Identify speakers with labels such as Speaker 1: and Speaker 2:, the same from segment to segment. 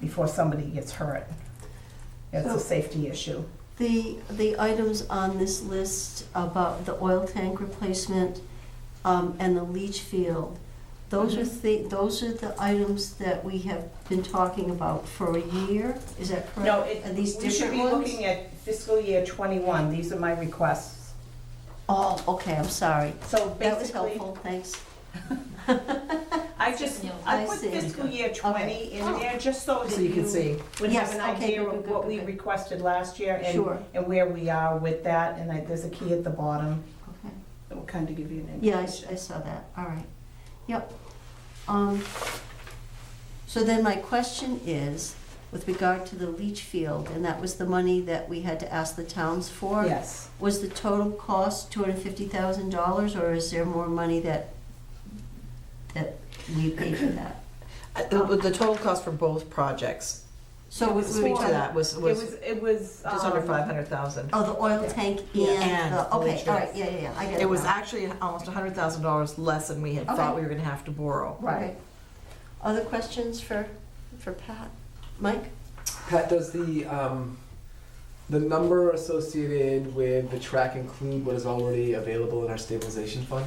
Speaker 1: before somebody gets hurt. It's
Speaker 2: So-
Speaker 1: a safety issue.
Speaker 2: The, the items on this list about the oil tank replacement um, and the leach field, those are
Speaker 1: Mm-hmm.
Speaker 2: the, those are the items that we have been talking about for a year, is that correct?
Speaker 1: No, it,
Speaker 2: Are
Speaker 1: we
Speaker 2: these
Speaker 1: should
Speaker 2: different
Speaker 1: be
Speaker 2: ones?
Speaker 1: looking at fiscal year twenty-one, these are my requests.
Speaker 2: Oh, okay, I'm sorry.
Speaker 1: So
Speaker 2: That was
Speaker 1: basically,
Speaker 2: helpful, thanks.
Speaker 1: I just, I
Speaker 2: I
Speaker 1: put
Speaker 2: see. Oh.
Speaker 1: fiscal year twenty in there, just so
Speaker 3: So
Speaker 1: that
Speaker 3: you can
Speaker 1: you
Speaker 3: see.
Speaker 1: would have
Speaker 2: Yes,
Speaker 1: an
Speaker 2: okay,
Speaker 1: idea
Speaker 2: good,
Speaker 1: of
Speaker 2: good,
Speaker 1: what
Speaker 2: good,
Speaker 1: we
Speaker 2: good.
Speaker 1: requested last year and,
Speaker 2: Sure,
Speaker 1: and where we are with that, and I, there's a key at the bottom
Speaker 2: okay.
Speaker 1: that will kind of give you an indication.
Speaker 2: Yeah, I s- I saw that, all right. Yep. Um, So then my question is, with regard to the leach field, and that was the money that we had to ask the towns for?
Speaker 1: Yes,
Speaker 2: Was the total cost two hundred and fifty thousand dollars, or is there more money that, that we paid for that?
Speaker 3: Uh, The, the total cost for both projects,
Speaker 2: So we- we were
Speaker 3: speak to
Speaker 2: talking-
Speaker 3: that, was,
Speaker 1: it
Speaker 3: was
Speaker 1: was, it was.
Speaker 3: just under
Speaker 1: um,
Speaker 3: five hundred thousand.
Speaker 2: Oh, the oil tank
Speaker 1: Yeah.
Speaker 2: and
Speaker 3: And
Speaker 2: the,
Speaker 3: the
Speaker 2: okay,
Speaker 3: leach
Speaker 2: all
Speaker 3: field.
Speaker 2: right, yeah, yeah, yeah, I get it
Speaker 3: It was
Speaker 2: now.
Speaker 3: actually almost hundred thousand dollars less than we had thought
Speaker 2: Okay.
Speaker 3: we were gonna have to borrow.
Speaker 1: Right.
Speaker 2: Okay. Other questions for, for Pat? Mike?
Speaker 4: Pat, does the um, the number associated with the track include what is already available in our stabilization fund?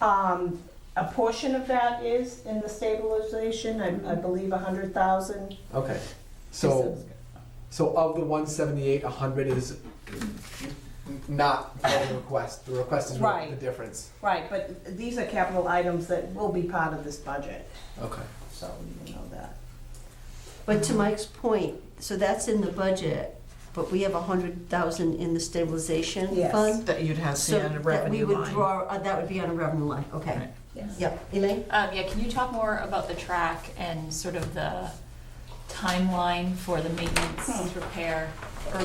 Speaker 1: Um, a portion of that is in the stabilization, I, I believe a hundred thousand.
Speaker 4: Okay. So so of the 178, 100 is not the request. The request is what the
Speaker 1: Right.
Speaker 4: difference.
Speaker 1: Right, but these are capital items that will be part of this budget,
Speaker 4: Okay.
Speaker 1: so you know that.
Speaker 2: But to Mike's point, so that's in the budget, but we have a hundred thousand in the stabilization
Speaker 1: Yes.
Speaker 2: fund?
Speaker 3: That you'd have
Speaker 2: So
Speaker 3: seen on a
Speaker 2: that we
Speaker 3: revenue
Speaker 2: would
Speaker 3: line.
Speaker 2: draw, uh, that would be on a revenue line, okay.
Speaker 3: Right.
Speaker 1: Yes.
Speaker 2: Yep, Elaine?
Speaker 5: Um, yeah, can you talk more about the track and sort of the timeline for the maintenance repair? Or,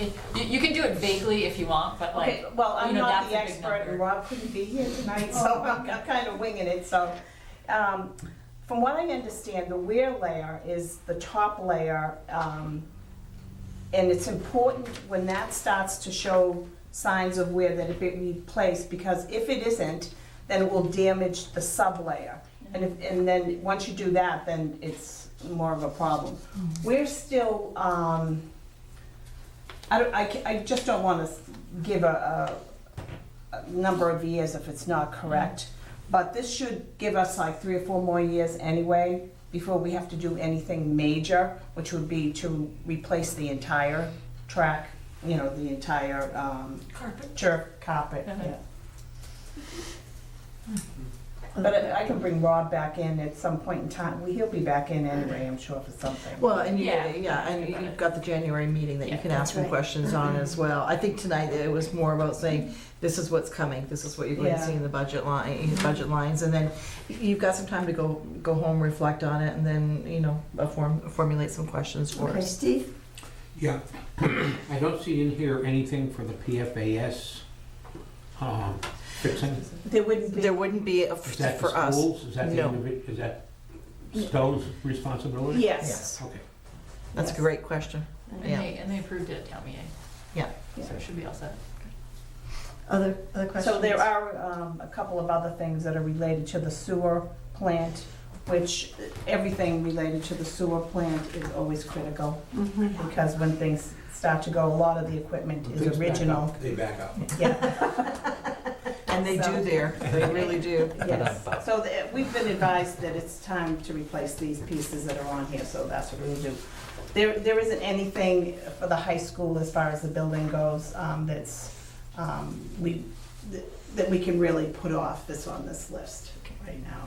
Speaker 5: it, you, you can do it vaguely if you want, but
Speaker 1: Okay,
Speaker 5: like,
Speaker 1: well, I'm
Speaker 5: you know,
Speaker 1: not
Speaker 5: that's
Speaker 1: the
Speaker 5: a big
Speaker 1: expert, and
Speaker 5: number.
Speaker 1: Rob couldn't be here tonight, so I'm I'm kind of winging it, so. um, From what I understand, the wear layer is the top layer, um, and it's important when that starts to show signs of wear that it be replaced, because if it isn't, then it will damage the sublayer. And if, and then, once you do that, then it's more of a problem.
Speaker 5: Mm-hmm.
Speaker 1: We're still, um, I don't, I, ca- I just don't wanna s- give a, a, a number of years if it's not correct. But this should give us like three or four more years anyway, before we have to do anything major, which would be to replace the entire track, you know, the entire, um,
Speaker 5: Carpet.
Speaker 1: turf carpet,
Speaker 5: Uh-huh.
Speaker 1: yeah. But I I can bring Rob back in at some point in time, Well, he'll be back in anyway, I'm sure, for something.
Speaker 3: Well, and you,
Speaker 5: Yeah.
Speaker 3: yeah, and
Speaker 5: About
Speaker 3: you've
Speaker 5: it.
Speaker 3: got the January meeting that you
Speaker 5: Yeah,
Speaker 3: can ask
Speaker 2: that's
Speaker 3: some
Speaker 2: right.
Speaker 3: questions on as well. I think tonight it was more about saying, this is what's coming, this is what you're going to
Speaker 1: Yeah.
Speaker 3: see in the budget line, budget lines. And then you've got some time to go, go home, reflect on it, and then, you know, uh, form, formulate some questions for
Speaker 2: Okay,
Speaker 3: us.
Speaker 2: Steve?
Speaker 6: Yeah, I don't see in here anything for the PFAS um, fixing.
Speaker 1: There wouldn't be,
Speaker 3: There wouldn't be, a-
Speaker 6: Is that the
Speaker 3: for us.
Speaker 6: schools? Is that the
Speaker 3: no.
Speaker 6: individ- Is that Stowe's responsibility?
Speaker 1: yes,
Speaker 6: Okay.
Speaker 3: That's a great question. Yeah.
Speaker 5: And they, and they approved it at town meeting.
Speaker 3: Yeah.
Speaker 5: So it should be all set.
Speaker 2: Other, other questions?
Speaker 1: so there are um, a couple of other things that are related to the sewer plant, which, uh, everything related to the sewer plant is always critical,
Speaker 2: Mhm.
Speaker 1: because when things start to go, a lot of the equipment
Speaker 4: When
Speaker 1: is original.
Speaker 4: They back up.
Speaker 1: Yeah,
Speaker 3: And they
Speaker 1: So-
Speaker 3: do there, they really do.
Speaker 1: yes. So the- we've been advised that it's time to replace these pieces that are on here, so that's what we'll do. There, there isn't anything for the high school as far as the building goes um, that's, um, we, that we can really put off this on this list right now.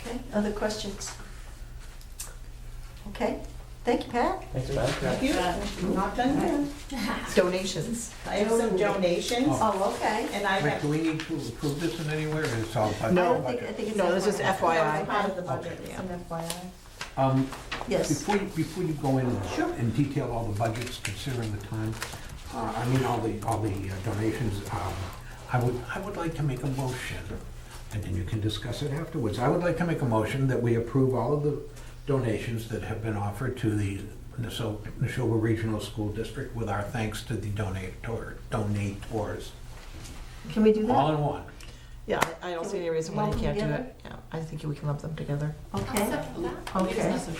Speaker 2: Okay, other questions? Okay, thank you, Pat.
Speaker 1: Thank you. Not done yet.
Speaker 3: Donations.
Speaker 1: I have some donations,
Speaker 2: Oh, okay.
Speaker 1: and I
Speaker 6: Rick,
Speaker 1: have.
Speaker 6: do we need to approve this in anywhere, or is it all
Speaker 2: I
Speaker 6: by?
Speaker 2: don't think, I think it's.
Speaker 3: No, this is
Speaker 1: That was
Speaker 3: FYI.
Speaker 1: Part of the budget, it's an FYI.
Speaker 6: Um,
Speaker 2: Yes.
Speaker 6: Before, you- before you go in and detail all the budgets, considering the time, uh, I mean, all the, all the uh, donations, um, I would, I would like to make a motion, and then you can discuss it afterwards. I would like to make a motion that we approve all of the donations that have been offered to the Nassau- Neshoba Regional School District with our thanks to the donator, donators,
Speaker 2: Can we do that?
Speaker 6: all in one.
Speaker 3: Yeah, I I don't see any reason why you can't do it. Yeah, I think we can lump them together.
Speaker 2: Okay.
Speaker 5: Except for that.
Speaker 2: Okay.
Speaker 5: It's not so